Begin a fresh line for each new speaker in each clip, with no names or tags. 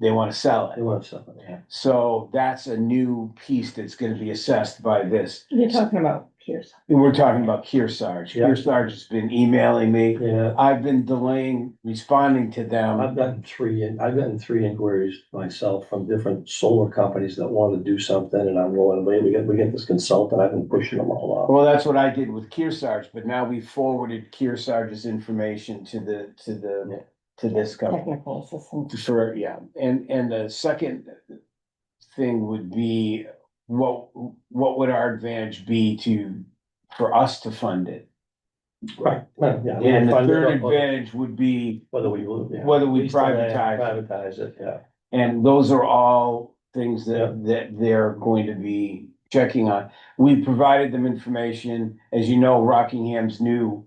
they wanna sell
They
it.
want something, yeah.
So that's a new piece that's gonna be assessed by this.
You're talking about Pierce.
We're talking about Kearsarge.
Yeah.
Kearsarge has been emailing me.
Yeah,
I've been delaying responding to them.
I've gotten three, in- I've gotten three inquiries myself from different solar companies that want to do something and I'm going, wait, we get, we get this consultant, I've been pushing them all off.
Well, that's what I did with Kearsarge, but now we forwarded Kearsarge's information to the, to
Yeah.
the, to this company.
Technical assistance.
For, yeah, and, and the second thing would be, what, what would our advantage be to, for us to fund it?
Right. Well, yeah. we
And the
find
third
out whether-
advantage would be,
Whether we, will, yeah.
whether we
still
privatize.
Privatize it, yeah.
and those are all things
Yeah.
that, that they're going to be checking on. We provided them information, as you know, Rockingham's new,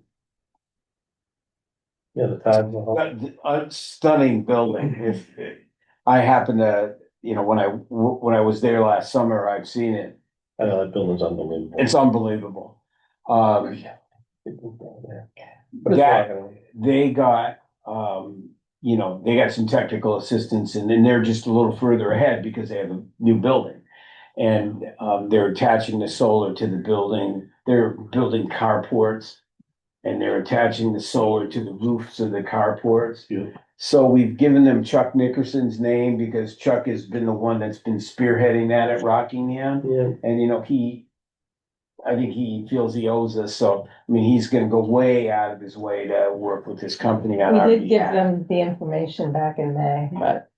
Yeah, the time. the whole-
uh, stunning building, if, I happen to, you know, when I, when I was there last summer, I've seen it,
I know that building's unbelievable.
it's unbelievable. Um,
Yeah. People down there. But it's
that
not gonna-
they got, um, you know, they got some technical assistance and then they're just a little further ahead because they have a new building. And, um, they're attaching the solar to the building, they're building carports. And they're attaching the solar to the roofs of the carports.
Yeah.
So we've given them Chuck Nickerson's name because Chuck has been the one that's been spearheading that at Rockingham.
uh, Yeah,
And you know, he, I think he feels he owes us, so, I mean, he's gonna go way out of his way to work with his company on our
We did give
behalf.
them the information back in May.
But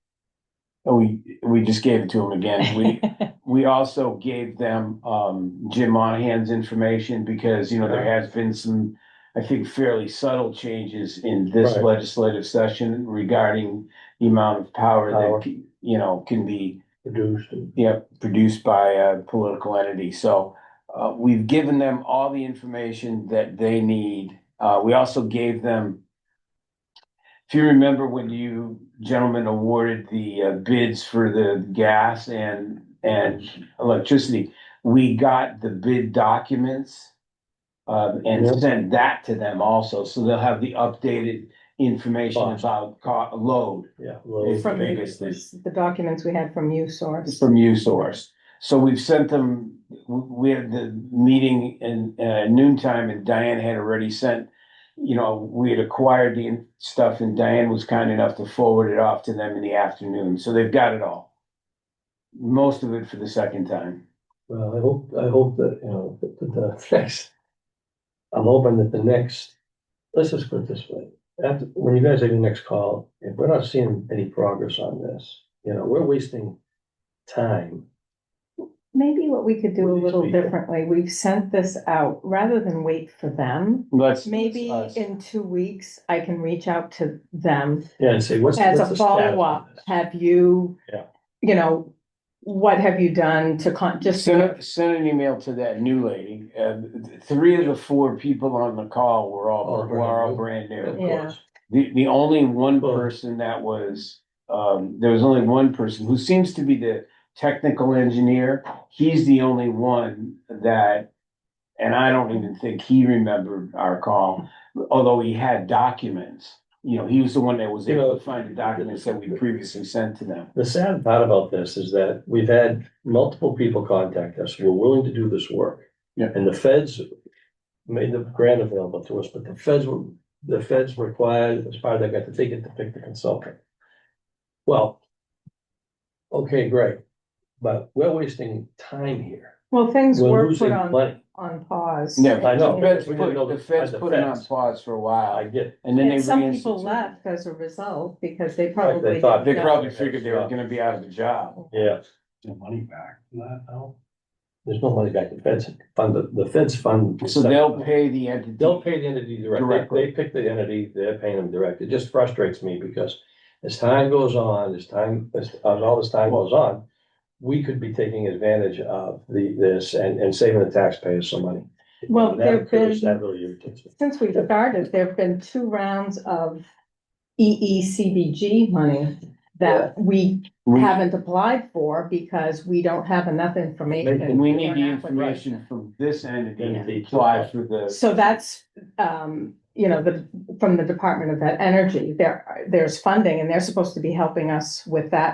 we, we just gave it to him again. We, we also gave them, um, Jim Monahan's information because, you know, there has been some, I think fairly subtle changes in this
Right.
legislative session regarding the amount of power
Power.
that, c- you know, can be
produced and
yeah, produced by a political entity, so, uh, we've given them all the information that they need, uh, we also gave them. If you remember when you gentlemen awarded the uh, bids for the gas and, and electricity, we got the bid documents. Uh,
Yeah.
and sent that to them also, so they'll have the updated information
Cost.
about co- load
yeah. well,
It's
From you,
biggest thing.
the documents we had from you source.
from you source. So we've sent them, we had the meeting in uh, noon time and Diane had already sent, you know, we had acquired the stuff and Diane was kind enough to forward it off to them in the afternoon. So they've got it all. Most of it for the second time.
Well, I hope, I hope that, you know, that that the next, I'm hoping that the next, let's just put it this way. After, when you guys have your next call, if we're not seeing any progress on this, you know, we're wasting time.
Maybe what we could do a
With these
little
people.
differently, we've sent this out, rather than wait for them.
Let's. uh,
Maybe
us.
in two weeks, I can reach out to them
Yeah, and say, what's.
as
what's
a
the status of
follow-up.
this?
Have you?
Yeah.
You know, what have you done to con, just,
Send, a- send an email to that new lady. Uh, th- three of the four people on the call were all,
All brand
were all
new.
brand
Of
new.
Yeah.
course.
The, the only one
Well-
person that was, um, there was only one person who seems to be the technical engineer. He's the only one that, and I don't even think he remembered our call, although he had documents. You know, he was the one that was
You
able
know-
to find the documents that we previously sent to them.
The sad part about this is that we've had multiple people contact us who are willing to do this work.
Yeah.
And the feds made the grant available to us, but the feds were, the feds required, as part of that, got to take it to pick the consultant. Well, okay, great, but we're wasting time here.
well, things
We're
were put
losing
on,
money.
on pause.
Yeah,
I know.
the feds
We didn't know
put, the feds
the
put it on
feds.
pause for a
I
while
get, it.
and then they.
And some people
reinstituted.
left as a result because they probably.
thought-
They
didn't know.
probably figured they were gonna be out of the job.
yeah.
the money back from that now?
There's no money back. The feds fund, the- the feds fund.
So they'll pay the entity.
They'll pay the entity directly.
Directly.
They pick the entity, they're paying them direct. It just frustrates me because as time goes on, as time, as, as all this time goes on, we could be taking advantage of the, this and, and saving the taxpayers some money.
Well,
That
there've
occurs-
been-
That really irritates me.
Since we've started, there've been two rounds of E EECBG money that we
We-
haven't applied for because we don't have enough
And
information.
we need the
Or not, but right.
information from this entity
Entity
to
to
apply
apply.
for the,
So that's, um, you know, the, from the Department of Energy, there, there's funding and they're supposed to be helping us with that